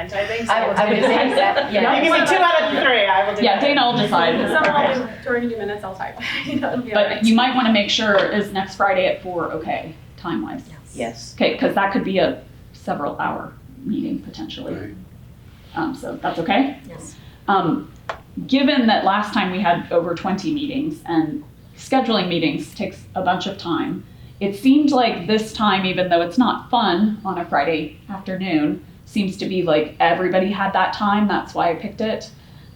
And I think so. I will do the same set. Yeah. You give me two out of the three, I will do Yeah, that. Dana will decide. Okay. Somehow, during your minutes, I'll type. You know, it'll be all But right. you might want to make sure is next Friday at four okay time wise. Yes. Okay, because that could be a several hour meeting potentially. Right. Um, so that's okay. Yes. Um, given that last time we had over 20 meetings and scheduling meetings takes a bunch of time, it seemed like this time, even though it's not fun on a Friday afternoon, seems to be like everybody had that time. That's why I picked it.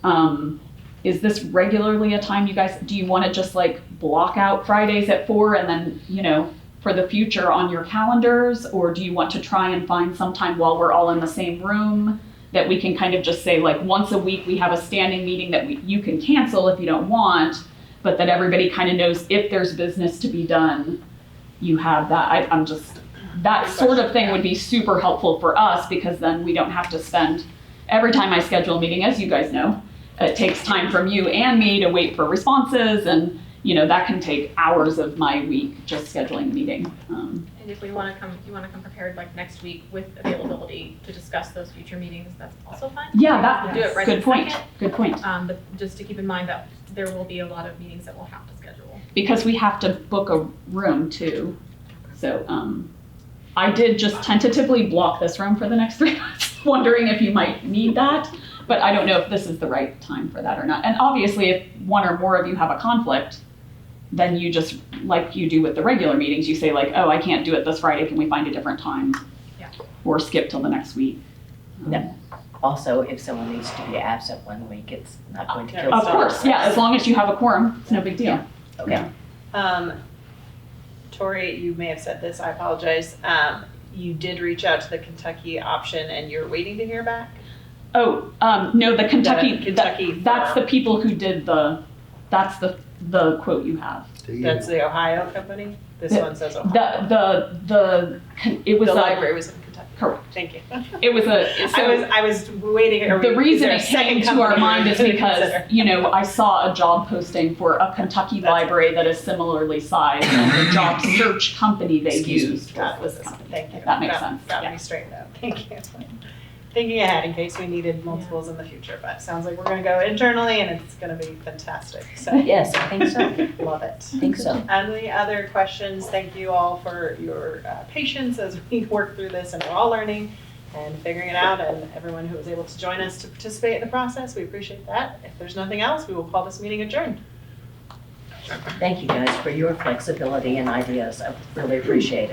Um, is this regularly a time you guys do you want to just like block out Fridays at four and then, you know, for the future on your calendars? Or do you want to try and find some time while we're all in the same room that we can kind of just say, like, once a week we have a standing meeting that we, you can cancel if you don't want, but that everybody kind of knows if there's business to be done, you have that. I, I'm just, that Good sort of question, thing yeah. would be super helpful for us because then we don't have to spend every time I schedule a meeting, as you guys know, it takes time from you and me to wait for responses and you know that can take hours of my week just scheduling a meeting. Um, And if we want to come, you want to come prepared like next week with availability to discuss those future meetings, that's also fine. yeah, that Do it right good in point. second. Good point. Um, but just to keep in mind that there will be a lot of meetings that we'll have to schedule. Because we have to book a room too, so um, I did just tentatively block this room for the next three months, wondering if you might need that. But I don't know if this is the right time for that or not. And obviously, if one or more of you have a conflict, then you just like you do with the regular meetings, you say like, "Oh, I can't do it this Friday. Can we find a different time?" Yeah. Or skip till the next week. Um, Yeah. Also, if someone needs to be absent one week, it's not going to kill. Of the course, yeah, as long as you have a quorum, it's no big deal. Okay. Um, Tori, you may have said this, I apologize. Um, you did reach out to the Kentucky option and you're waiting to hear back? Oh, um, no, the Kentucky, The that- Kentucky that's firm. the people who did the, that's the, the quote you have. Do you- That's the Ohio company? This The- one says Ohio. The, the, the, it was The a, library was in Kentucky. correct, Thank you. it was a, I was, so I was waiting. are we- the is reason there a it came second to our company mind we is should because, consider? you know, I saw a job posting for a Kentucky That's- library that is similarly sized and the job search company they Excuse me. used That was was, this company. thank you. If that makes Got- sense, Got yeah. me straightened out, thank you. Thinking ahead in case we needed multiples in the future, but it sounds like we're gonna go internally and it's gonna be fantastic, so. Yes, I think so. Love it. I think so. Any other questions? Thank you all for your uh, patience as we work through this and we're all learning and figuring it out and everyone who was able to join us to participate in the process, we appreciate that. If there's nothing else, we will call this meeting adjourned. Thank you guys for your flexibility and ideas. I really appreciate it.